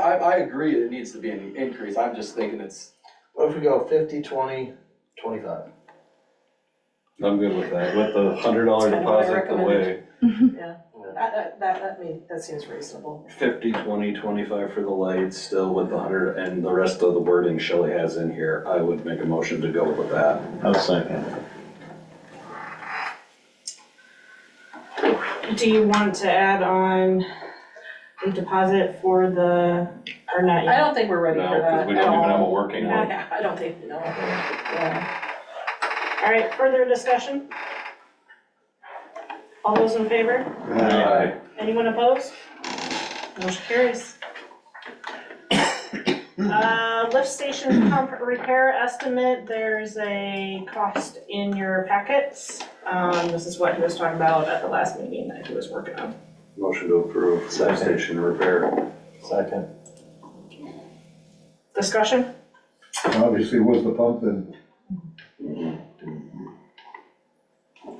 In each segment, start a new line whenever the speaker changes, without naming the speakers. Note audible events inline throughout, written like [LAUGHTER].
I, I agree it needs to be an increase, I'm just thinking it's,
What if we go fifty, twenty, twenty-five?
I'm good with that, with the hundred dollar
That's kinda what I
deposit away,
yeah, that, that, that, that mean, that seems reasonable.
fifty, twenty, twenty-five for the lights, still with the hundred, and the rest of the wording Shelley has in here, I would make a motion to go with that.
I'll second.
Do you want to add on a um, deposit for the, or not yet?
I don't think we're ready for
No,
that
'cause
at
we don't even have a
all.
working
Yeah,
one.
[LAUGHS] I don't think, no, yeah,
All right, further discussion? All those in favor?
Aye.
Anyone opposed? Motion carries. Uh, lift station pump repair estimate, there's a cost in your packets. Um, this is what he was talking about at the last meeting that he was working on.
Motion to approve lift station repair.
Second.
Discussion?
Obviously was the pump and,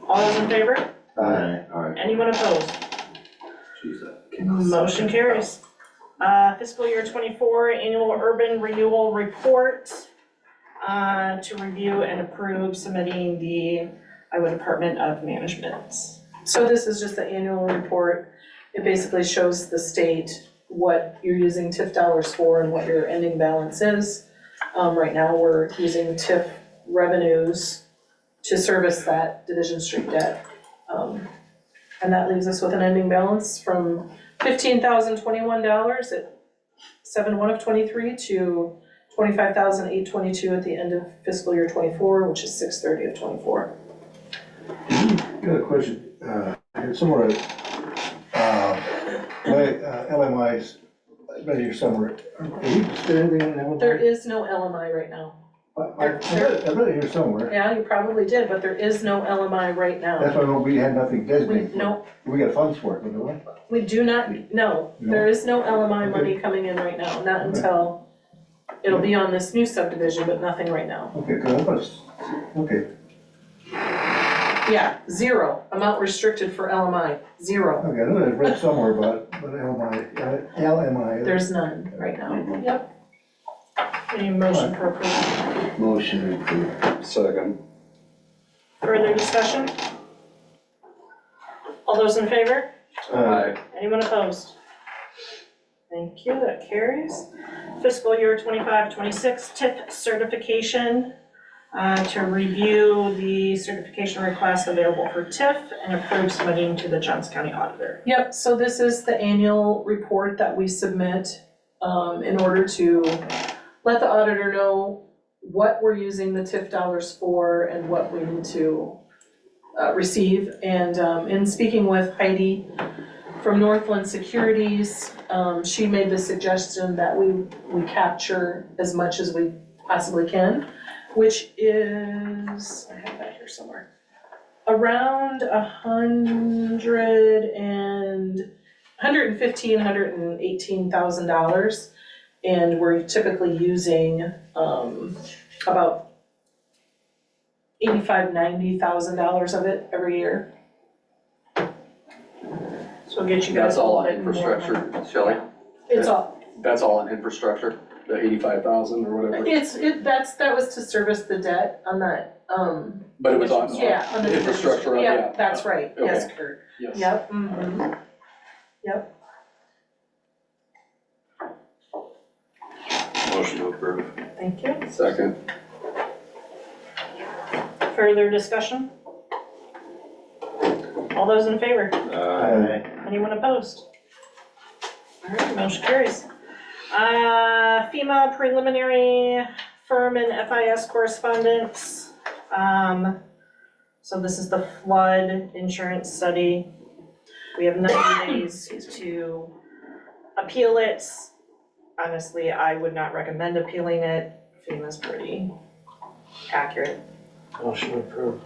All those in favor?
uh,
Anyone opposed?
Jesus.
Motion carries. Uh, fiscal year twenty-four annual urban renewal report, uh, to review and approve submitting the Iowa Department of Management.
so this is just the annual report, it basically shows the state what you're using TIF dollars for and what your ending balance is. Um, right now, we're using TIF revenues to service that Division Street debt. Um, and that leaves us with an ending balance from fifteen thousand twenty-one dollars at seven one of twenty-three to twenty-five thousand eight twenty-two at the end of fiscal year twenty-four, which is six thirty of twenty-four.
got a question, uh, it's somewhat, uh, my, uh, LMI's, I bet you're somewhere, are we still in LMI?
There is no LMI right now.
I, I- I bet I bet you're somewhere,
Yeah, you probably did, but there is no LMI right
that's
now.
why we had nothing
We,
designated.
no,
We got funds for it, you know what?
we do not, no, there is no LMI money coming in right now, not until, it'll be on this new subdivision, but nothing right now.
Okay, good, I was, okay,
Yeah, zero, amount restricted for LMI, zero.
okay, I know I read somewhere about, but LMI, uh, LMI.
There's none right now. Yep.
Any motion for approval?
Motion approved.
Second.
Further discussion? All those in favor?
Uh,
Aye.
Anyone opposed? Thank you, that carries. Fiscal year 25-26 TIP certification, uh, to review the certification requests available for TIF and approve submitting to the Johnson County Auditor.
Yep, so this is the annual report that we submit, um, in order to let the auditor know what we're using the TIF dollars for and what we need to uh, receive. And um, in speaking with Heidi from Northland Securities, um, she made the suggestion that we, we capture as much as we possibly can, which is, I have that here somewhere, around a hundred and, hundred and fifteen, hundred and eighteen thousand dollars. And we're typically using, um, about eighty-five, ninety thousand dollars of it every year.
So we'll get you guys.
that's all
a
on
little bit more.
infrastructure, Shelley,
It's all,
that's all on infrastructure, the eighty-five thousand or whatever,
it's, it, that's, that was to service the debt on that, um,
but it was on,
yeah, on the.
infrastructure, yeah.
Yeah, that's right, yes, Kurt,
Yes.
yep, mhm.
Motion to approve.
Thank you.
Second,
Further discussion? All those in favor?
uh,
Aye.
Uh,
Aye.
Anyone opposed? All right, motion carries. Uh, FEMA preliminary firm and FIS correspondence. Um, so this is the flood insurance study. We have ninety [COUGHS] days to appeal it. Honestly, I would not recommend appealing it. FEMA's pretty accurate.
Motion approved.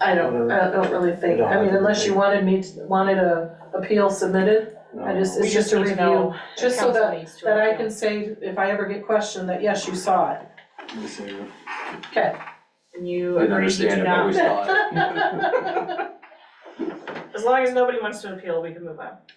I don't, I don't really think, I mean, unless you wanted me, to- wanted a appeal submitted, I just,
We
it's just a
need to
review,
know if
just so
council
that,
needs to
that I
appeal.
can say, if I ever get questioned, that yes, you saw it. Okay. [LAUGHS]
And you
didn't
agree to
understand
do
it, but we
not.
saw it.
As long as nobody wants to appeal, we can move on.